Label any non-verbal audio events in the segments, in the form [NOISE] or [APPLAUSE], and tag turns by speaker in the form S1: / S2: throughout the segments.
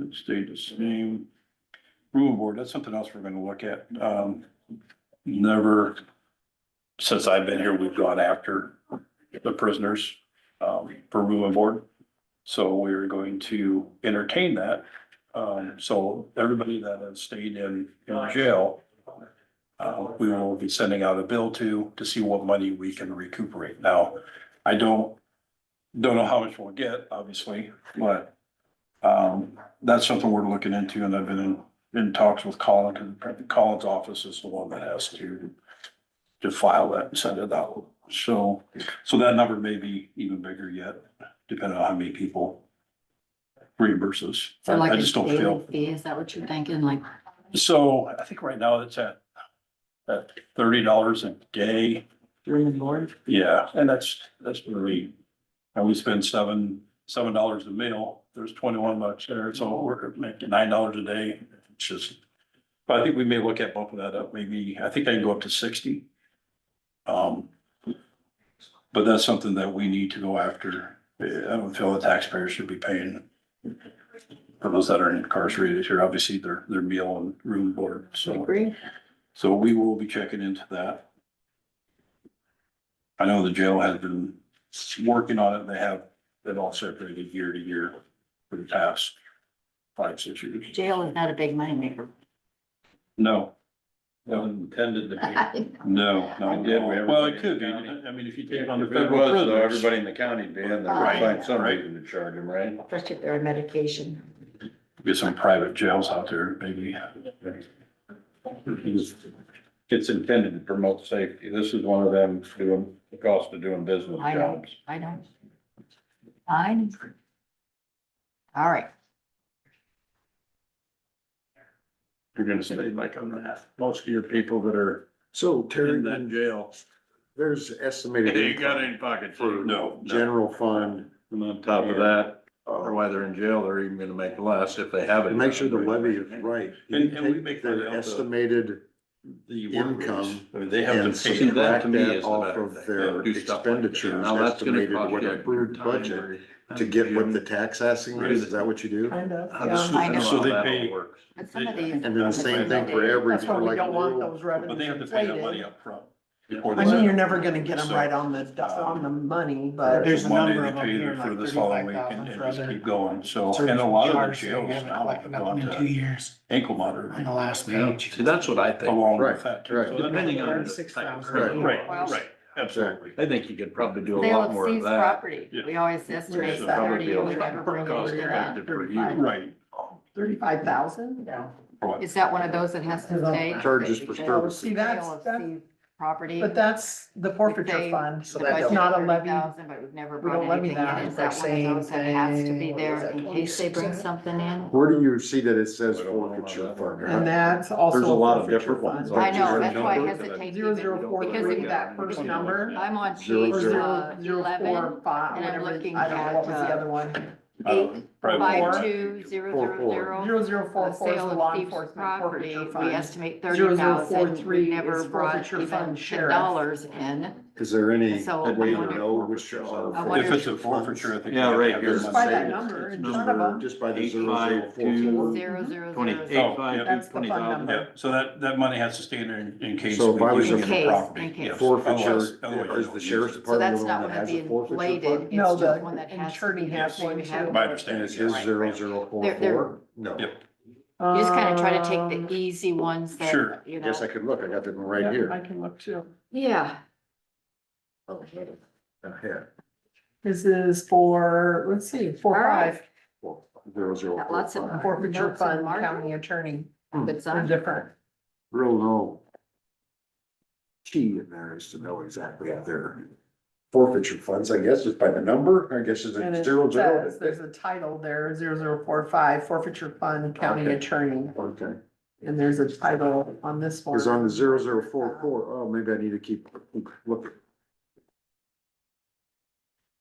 S1: It stayed the same. Rule board, that's something else we're gonna look at. Um, never, since I've been here, we've gone after the prisoners, um, for rule board. So we're going to entertain that. Um, so everybody that has stayed in, in jail, uh, we will be sending out a bill to, to see what money we can recuperate. Now, I don't, don't know how much we'll get, obviously, but um, that's something we're looking into and I've been in, in talks with Colin, because Colin's office is the one that has to to file that and send it out. So, so that number may be even bigger yet, depending on how many people reimburses.
S2: So like
S1: I
S2: a
S1: just don't
S2: daily
S1: feel.
S2: fee, is that what you're thinking, like?
S1: So I think right now it's at, at thirty dollars a day.
S2: Room and board?
S1: Yeah, and that's, that's really, and we spend seven, seven dollars a meal, there's twenty-one bucks there, so we're making nine dollars a day, it's just. But I think we may look at bumping that up, maybe, I think I can go up to sixty. Um, but that's something that we need to go after, I don't feel the taxpayers should be paying. For those that are incarcerated here, obviously their, their meal and room board, so,
S2: Agree.
S1: so we will be checking into that. I know the jail has been working on it. They have, they've all separated year to year for the past five, six years.
S2: Jail is not a big moneymaker.
S1: No, No.
S3: intended to
S2: [LAUGHS]
S3: be.
S1: no, no.
S3: We did, we have-
S1: Well, it could be. I mean, if uh, you take on the
S3: If it
S1: federal
S3: was, though,
S1: prisoners.
S3: everybody in the county be in there,
S2: Right.
S3: would find some reason to charge them, right?
S2: Especially if they're on medication.
S1: Get some private jails out there, maybe.
S3: It's intended to promote safety. This is one of them doing, the cost of doing business
S2: I know,
S3: jobs.
S2: I know. I know. All right,
S1: You're gonna stay like on that. Most of your people that are
S4: So
S1: in
S4: Terry,
S1: that jail.
S4: there's
S3: [LAUGHS]
S4: estimated.
S3: any pocket
S1: No, no.
S4: General fund,
S3: And on top of that, or
S4: uh,
S3: why they're in jail, they're even gonna make less if they
S4: to
S3: haven't.
S4: make sure the levy is right. You
S1: And- and we
S4: take
S1: make that
S4: Their
S1: out the-
S4: estimated
S1: The
S4: income
S1: I mean, they have
S4: and
S1: to pay.
S3: See, that
S4: subtract
S3: to me is
S4: that
S3: the
S4: off
S3: better
S4: of
S3: thing.
S4: their
S3: Do stuff like that.
S4: expenditures,
S3: Now, that's gonna
S4: estimated
S3: cost
S4: what
S3: you
S4: approved
S3: time
S4: budget
S3: or-
S4: to get what the tax asking is. Is that what you do?
S5: Kind of,
S3: How
S5: yeah.
S3: does-
S2: I know.
S3: how
S1: So they
S3: that all
S1: pay-
S3: works.
S2: but some of these.
S4: And then the same thing for every,
S5: That's why
S4: for
S5: we
S4: like.
S5: don't want those revenues.
S1: But they have to pay that
S5: inflated.
S1: money upfront.
S3: before
S5: I
S3: they-
S5: mean, you're never gonna get them right on the, do- on the money,
S3: uh,
S5: but.
S1: There's
S6: There's
S1: a
S6: a
S1: money
S6: number
S1: they
S6: of 'em
S1: pay
S6: here,
S1: for
S6: like
S1: this following week
S6: 35,000
S1: and and
S6: for
S1: just
S6: other
S1: keep going, so,
S6: Service
S1: and a lot of the
S6: charge, they
S1: jails
S6: haven't
S1: now have
S6: collected
S1: gone
S6: nothing in two
S1: to
S6: years
S1: ankle monitor.
S6: on the last
S3: Yeah.
S6: page.
S3: See, that's what I think.
S1: Along
S4: Right,
S1: with that.
S4: right.
S1: So that-
S3: Depending on the
S6: Six
S3: type of
S6: thousand.
S3: criminal.
S1: Right,
S2: Well-
S1: right, absolutely.
S3: I think you could probably do a
S2: Sale
S3: lot
S2: of
S3: more of
S2: seized
S3: that.
S2: property,
S1: Yeah.
S2: we always estimate
S3: So probably
S2: thirty
S3: be a
S2: or
S3: lot
S2: whatever.
S3: more cost
S2: we're at.
S3: effective for you.
S5: Thirty-five.
S1: Right.
S5: Thirty-five thousand? Yeah.
S2: Is that one of those that has to stay?
S4: Charges for
S5: Well,
S4: service.
S5: see, that's,
S2: Sale of
S5: that,
S2: seized Property.
S5: but that's the forfeiture
S2: They-
S5: fund,
S2: The
S5: so that's
S2: budget
S5: not a
S2: is
S5: levy.
S2: 30,000, But we've never
S5: We don't
S2: brought
S5: levy
S2: anything in.
S5: that.
S2: Is that one of those that has to be there in case they bring something in?
S4: Where do you see that it says
S3: I don't know about
S4: forfeiture
S3: that.
S4: fund?
S5: And that's also.
S3: There's a lot of
S5: forfeiture
S3: different ones.
S5: fund.
S2: I know, that's why I
S3: Zero,
S2: hesitate
S5: Zero,
S2: even.
S5: zero, four,
S2: Because
S5: three,
S2: if-
S5: that first number.
S2: I'm on page
S4: Zero,
S5: Or zero,
S2: uh,
S5: zero,
S2: eleven,
S5: four, five,
S2: and I'm
S5: whatever, I don't
S2: looking
S5: know, what was
S2: at,
S5: the
S2: uh,
S5: other one?
S2: eight, five,
S5: four.
S2: two, zero,
S4: Four,
S2: zero,
S4: four.
S2: zero.
S5: Zero, zero,
S2: uh,
S5: four, four is the
S2: Sale
S5: law
S2: of thieves
S5: enforcement
S2: property,
S5: forfeiture
S2: we
S5: fund.
S2: estimate
S5: Zero,
S2: thirty
S5: zero, four,
S2: thousand, we
S5: three
S2: never
S5: is
S2: brought
S5: forfeiture
S2: even
S5: fund,
S2: ten
S5: sheriff.
S2: dollars in.
S4: Is there any
S2: So, I
S4: way to
S2: wonder-
S4: know which are?
S2: I wonder-
S1: If it's a forfeiture, I think.
S3: Yeah,
S1: you
S3: right
S1: have to
S3: here.
S1: have
S5: Just
S1: them
S5: by
S1: on
S5: that
S1: sale.
S5: number in front of
S3: Number
S5: them.
S4: Just by the
S3: Eight,
S4: zero, zero,
S3: five,
S4: four,
S3: two.
S2: Zero,
S4: four?
S2: zero, zero,
S3: Twenty-eight,
S2: zero.
S1: Oh, yeah.
S3: five,
S5: That's
S3: two,
S5: the
S3: twenty
S5: fund
S3: thousand.
S5: number.
S1: Yeah, so that, that money has to stay in there in- in case.
S4: So if I was
S1: we
S4: a-
S1: use the
S2: In case,
S1: property,
S2: in case.
S1: yes.
S4: Forfeiture,
S1: Otherwise- otherwise you
S4: is the
S1: don't
S4: sheriff's
S1: use it.
S2: So
S4: department
S2: that's
S4: the
S2: not
S4: one
S2: one
S4: that
S2: of
S4: has
S2: the
S4: a forfeiture
S2: inflated,
S4: fund?
S5: No,
S2: it's just
S5: the
S2: one that has.
S5: attorney has one
S2: we
S5: too.
S2: have-
S1: My
S4: And
S1: understanding
S4: it's
S1: is,
S4: his
S1: yes.
S4: zero, zero, four,
S2: They're- they're-
S4: four? No.
S1: Yep.
S2: You just kind of try to take the E easy ones
S1: Sure.
S2: that, you know.
S4: Guess I could look, I got that one
S5: Um,
S4: right
S5: yeah,
S4: here.
S5: I can look too.
S2: Yeah,
S4: Oh, Yeah,
S5: This is for, let's see, four,
S2: All right.
S5: five,
S4: four, zero, zero,
S2: Got
S4: four,
S2: lots of-
S4: five.
S5: forfeiture
S2: Notes and
S5: fund,
S2: margin.
S5: county attorney,
S2: but
S5: they're
S2: some,
S5: different.
S4: Real low. Key in there is to know exactly how their forfeiture funds, I guess, is by the number, I guess is
S5: And
S4: a
S5: it
S4: zero, zero.
S5: says, there's a title there, zero, zero, four, five, forfeiture fund, county
S4: Okay.
S5: attorney,
S4: Okay,
S5: and there's a title on this one.
S4: cause on the zero, zero, four, four, oh, maybe I need to keep looking.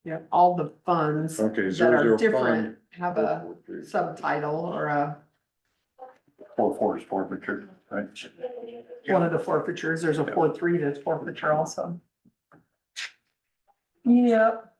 S5: Yeah, all the funds that
S4: Okay, zero,
S5: are
S4: zero, five.
S5: different have a subtitle or a,
S1: Four, four is forfeiture, right?
S5: one of the forfeitures, there's a four, three that's forfeiture also. Yep,